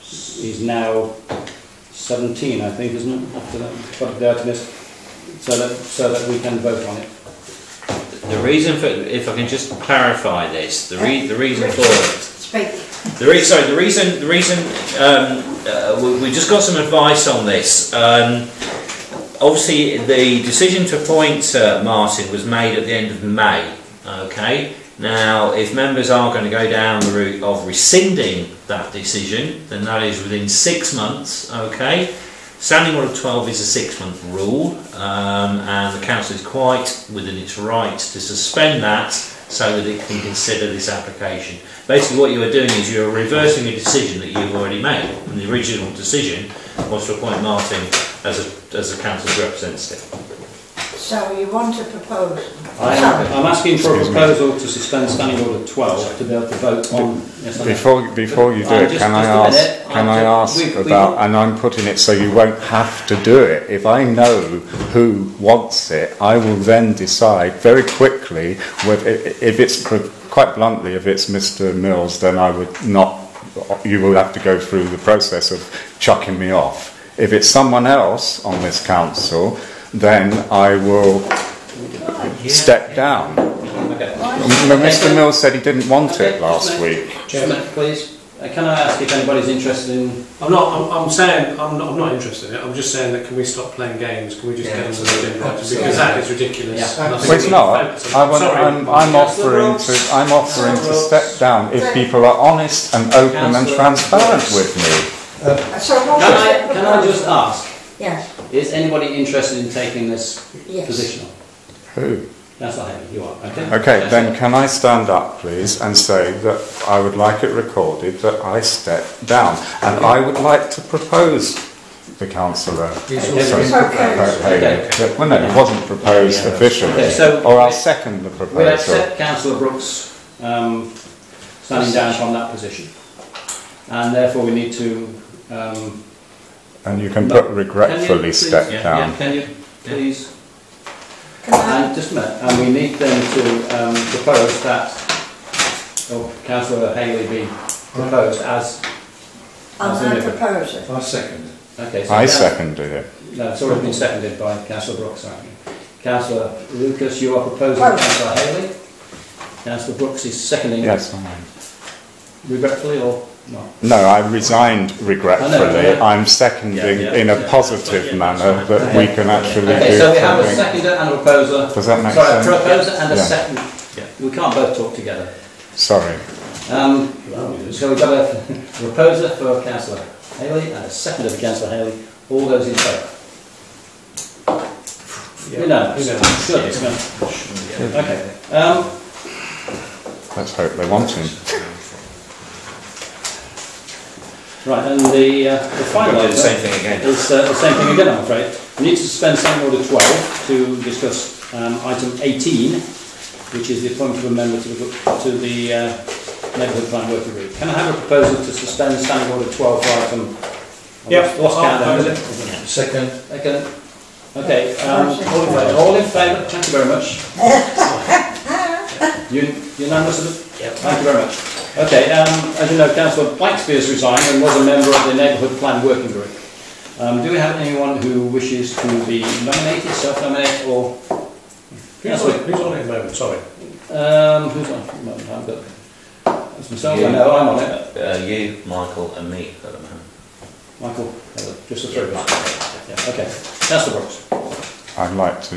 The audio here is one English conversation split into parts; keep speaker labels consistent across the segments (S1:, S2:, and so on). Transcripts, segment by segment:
S1: he's, he's now seventeen, I think, isn't it, after that, got the Artemis, so that, so that we can vote on it.
S2: The reason for, if I can just clarify this, the re, the reason for it,
S3: Speak.
S2: the re, sorry, the reason, the reason, um, uh, we, we just got some advice on this. Um, obviously, the decision to appoint uh, Martin was made at the end of May, okay? Now, if members are going to go down the route of rescinding that decision, then that is within six months, okay? Standing Order 12 is a six month rule, um, and the council is quite within its right to suspend that so that it can consider this application. Basically, what you are doing is you are reversing a decision that you've already made, and the original decision was to appoint Martin as a, as a council's representative.
S3: So you want to propose?
S1: I'm, I'm asking for a proposal to suspend standing order twelve to be able to vote on, yes or no?
S4: Before, before you do
S1: Uh,
S4: it,
S1: just-
S4: can I
S1: just a minute.
S4: ask, can
S1: Uh,
S4: I ask
S1: we- we
S4: about,
S1: won't-
S4: and I'm putting it so you won't have to do it. If I know who wants it, I will then decide very quickly whether, if it's, cr- quite bluntly, if it's Mr Mills, then I would not, you will have to go through the process of chucking me off. If it's someone else on this council, then I will step down.
S1: Okay.
S4: M- Mr Mills said he didn't want it last week.
S1: Just a minute, please, Uh, can I ask if anybody's interested in,
S5: I'm not. I'm, I'm saying I'm not. I'm not interested in it. I'm just saying that can we stop playing games? Can we just
S2: Yeah.
S5: get on to the agenda item? because that is ridiculous.
S1: Yeah.
S5: And I think
S4: Well, it's
S5: we
S4: not.
S5: need to focus
S4: I
S5: on it.
S4: want,
S5: Sorry.
S4: I'm, I'm offering to, I'm offering to step down if people are honest and open and
S1: Councillor-
S4: transparent with me.
S3: So what
S1: can
S3: is
S1: I,
S3: it
S1: can I just
S3: proposed?
S1: ask,
S3: Yes,
S1: is anybody interested in taking this
S3: yes.
S1: position on?
S4: Who?
S1: That's not happening, you are, okay?
S4: Okay,
S1: That's
S4: then
S1: it.
S4: can I stand up, please, and say that I would like it recorded that I step down? And I would like to propose the councillor.
S1: also-
S4: Sorry,
S3: Okay.
S4: Haley. But- Well, no, it wasn't proposed
S2: Yeah.
S4: officially,
S1: Okay, so-
S4: or I'll second the
S1: We
S4: proposal.
S1: accept councillor Brooks, um, standing down from that position. And therefore we need to, um,
S4: And you can put regretfully
S1: please-
S4: step
S2: yeah,
S4: down.
S1: yeah, can you, please?
S3: Can I,
S1: And just a minute, and we need then to um, propose that, or councillor Haley be proposed as,
S3: I'll now propose it.
S6: I second.
S1: okay. so
S4: I
S1: Council-
S4: seconded it.
S1: No, it's already been seconded by councillor Brooks, aren't you? Councillor Lucas, you are proposing
S3: Well-
S1: councillor Haley. Councillor Brooks is seconding
S4: Yes, I-
S1: regretfully or not?
S4: No, I resigned regretfully.
S1: I know, Oh, yeah.
S4: I'm seconding
S2: Yeah, yeah,
S4: in a
S2: yeah,
S4: positive
S2: that's fine, yeah,
S4: manner
S2: that's
S4: that
S1: fine.
S4: we can actually
S1: Okay,
S4: do
S1: so we have a
S4: something.
S1: seconder and a proposer.
S4: Does that make
S1: Sorry,
S4: sense?
S1: a proposer and a
S4: Yeah.
S1: second.
S2: Yeah.
S1: We can't both talk together.
S4: Sorry.
S1: Um, so we've got a proposer for councillor Haley and a seconder for councillor Haley. All those in favour? You know,
S5: You know.
S1: sure, it's going. Okay. Um,
S4: Let's hope they want him.
S1: right, and the, uh, the
S2: We've
S1: final
S2: got to do the same
S1: item
S2: thing again.
S1: is uh, the same thing again, I'm afraid. We need to suspend standing order 12 to discuss um, item 18, which is the appointment of a member to the, to the uh, neighbourhood plan working group. Can I have a proposal to suspend standing order 12 for item? I
S5: Yep,
S1: lost- Lost
S5: I'll
S1: count there,
S5: propose
S1: is it?
S6: Second.
S1: Okay, okay, um, all in favour, all in favour, thank you very much. Un- Unanimous, of it? thank you very much. Okay, um, as you know, councillor Blacksby has resigned and was a member of the neighbourhood plan working group. Um, do we have anyone who wishes to be nominated, self-nominate, or,
S5: Who's on, it? Who's on it at the moment? Sorry.
S1: um, who's on? No, I've got, that's myself,
S2: You.
S1: I know, I'm on it,
S2: Uh, you, Michael and me at the moment.
S1: Michael, just the three of us. Yeah, okay, councillor Brooks,
S4: I'd like to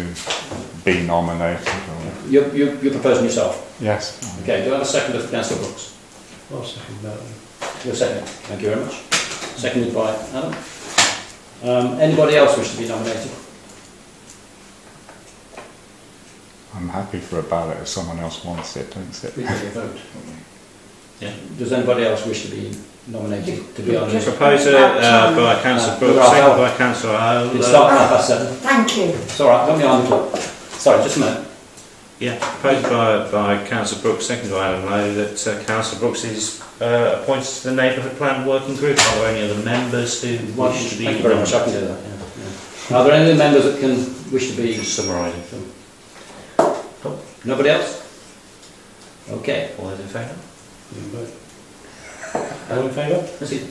S4: be nominated. Or...
S1: you're, you're you're proposing yourself.
S4: Yes.
S1: Okay, do I have a second for councillor Brooks?
S5: I'll second that.
S1: Your second, thank you very much. Seconded by Adam. Um, anybody else wish to be nominated?
S4: I'm happy for a ballot if someone else wants it, don't sit.
S6: We can vote.
S1: Does anybody else wish to be nominated to be on this?
S3: Just-
S2: Proposal uh, by councillor Brooks, second by uh, councillor Howell.
S1: It's start half past seven.
S3: Thank you.
S1: It's all right, don't be on the clock. Sorry, just a minute.
S2: Yeah, proposed by, by councillor Brooks, seconded by Alan Lowe, that uh, councillor Brooks is uh, appointed to the neighbourhood plan working group. Are there any other members who wish to be?
S1: Thank you very much, I can do that. yeah, yeah. Are there any members that can wish to be?
S2: Just summarising.
S1: Nobody else? Okay.
S2: All those in favour?
S5: All in favour?
S1: Let's see,